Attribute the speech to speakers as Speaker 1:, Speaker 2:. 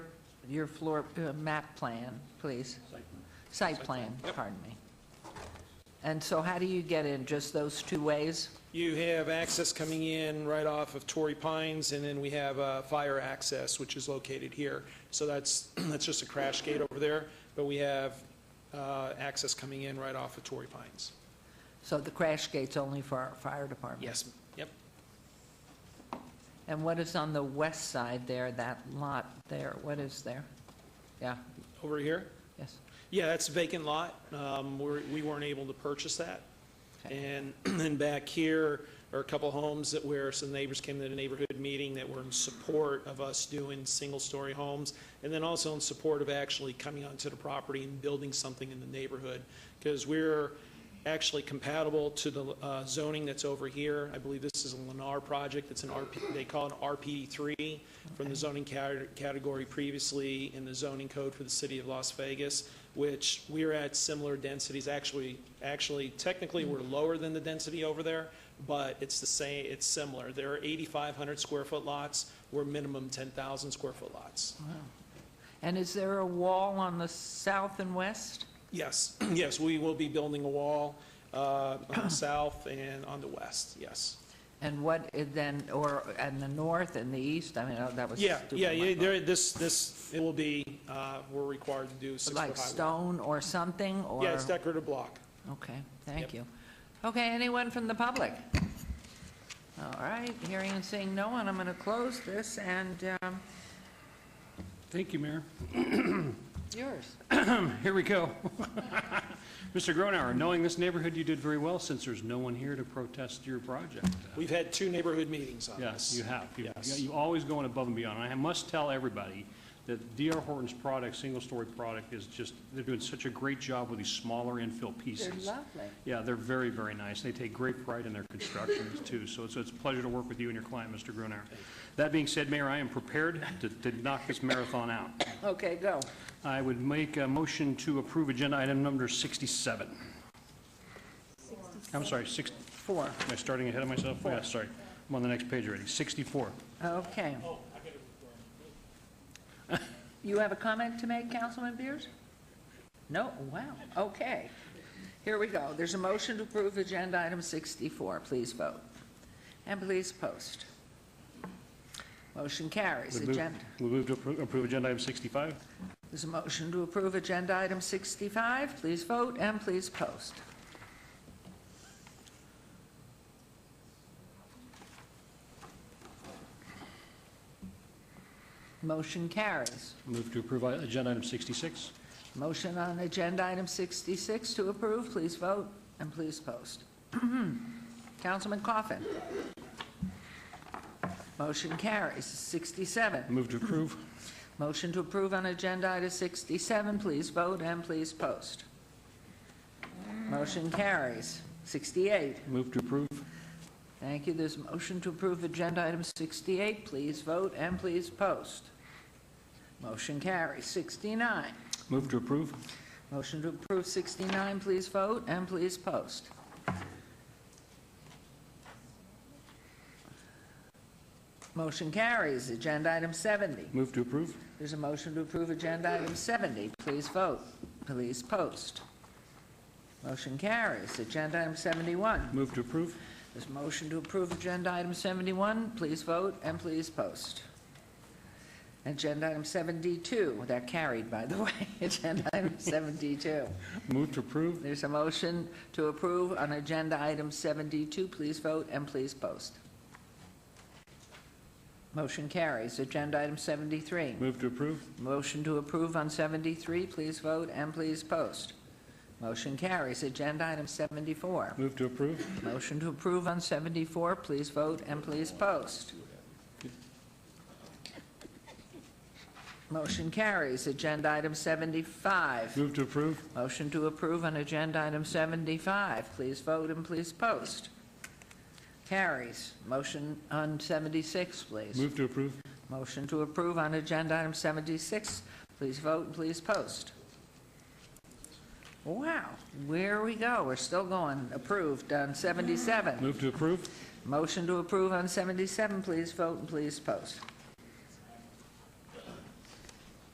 Speaker 1: your floor, uh, map plan, please. Site plan, pardon me. And so how do you get in, just those two ways?
Speaker 2: You have access coming in right off of Torrey Pines, and then we have uh, fire access, which is located here. So that's, that's just a crash gate over there, but we have uh, access coming in right off of Torrey Pines.
Speaker 1: So the crash gate's only for our fire department?
Speaker 2: Yes, yep.
Speaker 1: And what is on the west side there, that lot there, what is there? Yeah,
Speaker 2: Over here?
Speaker 1: yes,
Speaker 2: Yeah, that's a vacant lot. Um, we're- We weren't able to purchase that.
Speaker 1: Okay.
Speaker 2: And then back here are a couple homes that where some neighbors came to the neighborhood meeting that were in support of us doing single-story homes, and then also in support of actually coming onto the property and building something in the neighborhood. Because we're actually compatible to the uh, zoning that's over here. I believe this is a Lennar project, it's an RP, they call it RP3 from the zoning cate- category previously in the zoning code for the city of Las Vegas, which we're at similar densities, actually, actually technically we're
Speaker 1: Mm.
Speaker 2: lower than the density over there, but it's the same, it's similar. There are 8,500 square foot lots, we're minimum 10,000 square foot lots.
Speaker 1: And is there a wall on the south and west?
Speaker 2: Yes, yes, we will be building a wall uh, on the south and on the west, yes.
Speaker 1: And what, it then, or, and the north and the east, I mean, oh, that was
Speaker 2: Yeah,
Speaker 1: stupid.
Speaker 2: yeah,
Speaker 1: on my
Speaker 2: yeah,
Speaker 1: part.
Speaker 2: there, this, this, it will be, uh, we're required to do six-foot
Speaker 1: Like
Speaker 2: high wall.
Speaker 1: stone or something, or?
Speaker 2: Yeah, it's decorative block.
Speaker 1: Okay, thank
Speaker 2: Yep.
Speaker 1: you. Okay, anyone from the public? All right, hearing and seeing no one, I'm going to close this, and um,
Speaker 3: Thank you, Mayor.
Speaker 1: yours.
Speaker 3: Here we go. Mr. Gronauer, knowing this neighborhood, you did very well since there's no one here to protest your project.
Speaker 2: We've had two neighborhood meetings on
Speaker 3: Yes,
Speaker 2: this.
Speaker 3: you have. You-
Speaker 2: Yes.
Speaker 3: You always going above and beyond. And I must tell everybody that D.R. Horton's product, single-story product, is just, they're doing such a great job with these smaller infill pieces.
Speaker 1: They're lovely.
Speaker 3: Yeah, they're very, very nice. They take great pride in their constructions, too. So it's, it's a pleasure to work with you and your client, Mr. Grunauer. That being said, Mayor, I am prepared to, to knock this marathon out.
Speaker 1: Okay, go.
Speaker 3: I would make a motion to approve agenda item number 67. I'm sorry, six,
Speaker 1: Four.
Speaker 3: am I starting ahead of myself? Yeah, sorry. I'm on the next page already. 64.
Speaker 1: Okay. You have a comment to make, Councilman Beers? No? Wow, okay. Here we go. There's a motion to approve Agenda Item 64. Please vote. And please post. Motion carries.
Speaker 3: Would move-
Speaker 1: Agenda.
Speaker 3: would move to appro- approve agenda item 65.
Speaker 1: There's a motion to approve Agenda Item 65. Please vote and please post. Motion carries.
Speaker 3: Move to approve i- agenda item 66.
Speaker 1: Motion on Agenda Item 66 to approve. Please vote and please post. Councilman Coffin. Motion carries. 67.
Speaker 3: Move to approve.
Speaker 1: Motion to approve on Agenda Item 67, please vote and please post. Motion carries. 68,
Speaker 3: Move to approve.
Speaker 1: thank you. There's a motion to approve Agenda Item 68, please vote and please post. Motion carries. 69,
Speaker 3: Move to approve.
Speaker 1: motion to approve 69, please vote and please post. Motion carries. Agenda Item 70.
Speaker 3: Move to approve.
Speaker 1: There's a motion to approve Agenda Item 70. Please vote. Please post. Motion carries. Agenda Item 71.
Speaker 3: Move to approve.
Speaker 1: There's a motion to approve Agenda Item 71. Please vote and please post. Agenda Item 72, that carried, by the way. Agenda Item 72.
Speaker 3: Move to approve.
Speaker 1: There's a motion to approve on Agenda Item 72. Please vote and please post. Motion carries. Agenda Item 73.
Speaker 3: Move to approve.
Speaker 1: Motion to approve on 73, please vote and please post. Motion carries. Agenda item 74.
Speaker 3: Move to approve.
Speaker 1: Motion to approve on 74, please vote and please post. Motion carries. Agenda item 75.
Speaker 3: Move to approve.
Speaker 1: Motion to approve on agenda item 75, please vote and please post. Carries. Motion on 76, please.
Speaker 3: Move to approve.
Speaker 1: Motion to approve on agenda item 76. Please vote and please post. Wow, where we go, we're still going. Approved on 77.
Speaker 3: Move to approve.
Speaker 1: Motion to approve on 77, please vote and please post.